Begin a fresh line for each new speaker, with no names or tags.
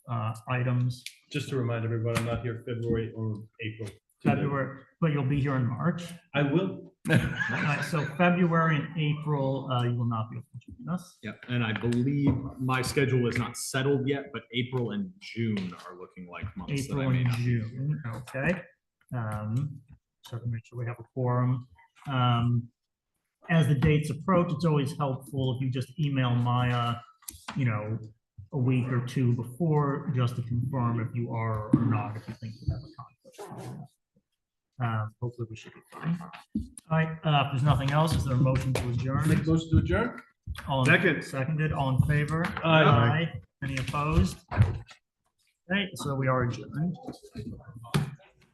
uh, items,
Just to remind everyone, I'm not here February or April.
February, but you'll be here in March.
I will.
Uh, So February and April, uh, you will not be able to join us.
Yep, and I believe my schedule is not settled yet, but April and June are looking like months that I
April
may
and
not.
June, okay? Um, so to make sure we have a quorum. Um, as the dates approach, it's always helpful if you just email Maya, you know, a week or two before, just to confirm if you are or not, if you think you have a conflict. Um, hopefully we should be fine. All right, uh, if there's nothing else, is there a motion to adjourn?
Make motion to adjourn?
All in-
Second.
Seconded, all in favor?
Aye.
Any opposed? Okay, so we are adjourned.